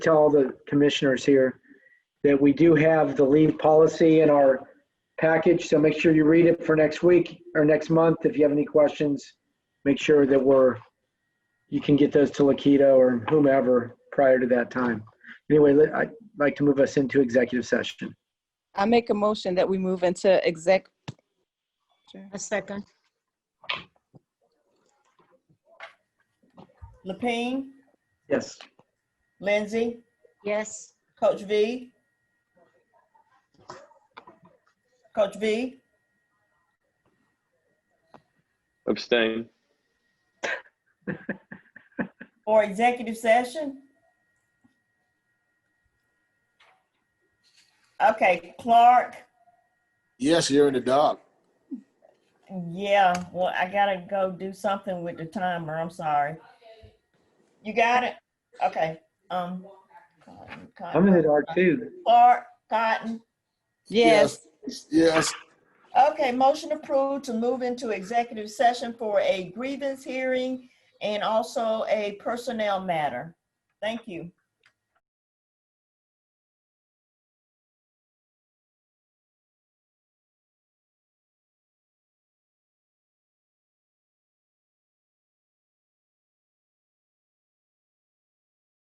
tell all the commissioners here that we do have the leave policy in our package, so make sure you read it for next week or next month. If you have any questions, make sure that we're, you can get those to Lakita or whomever prior to that time. Anyway, let- I'd like to move us into executive session. I make a motion that we move into exec. A second. Lapine, Yes. Lindsay, Yes. Coach V. Coach V, Abstain. for executive session? Okay, Clark, Yes, you're in the dark. yeah, well, I gotta go do something with the timer, I'm sorry. You got it? Okay, um. Cotton, I'm in the Cotton, dark too. Clark, Cotton, Yes, Yes, Okay, motion approved to move into executive session for a grievance hearing and also a personnel matter. Thank you.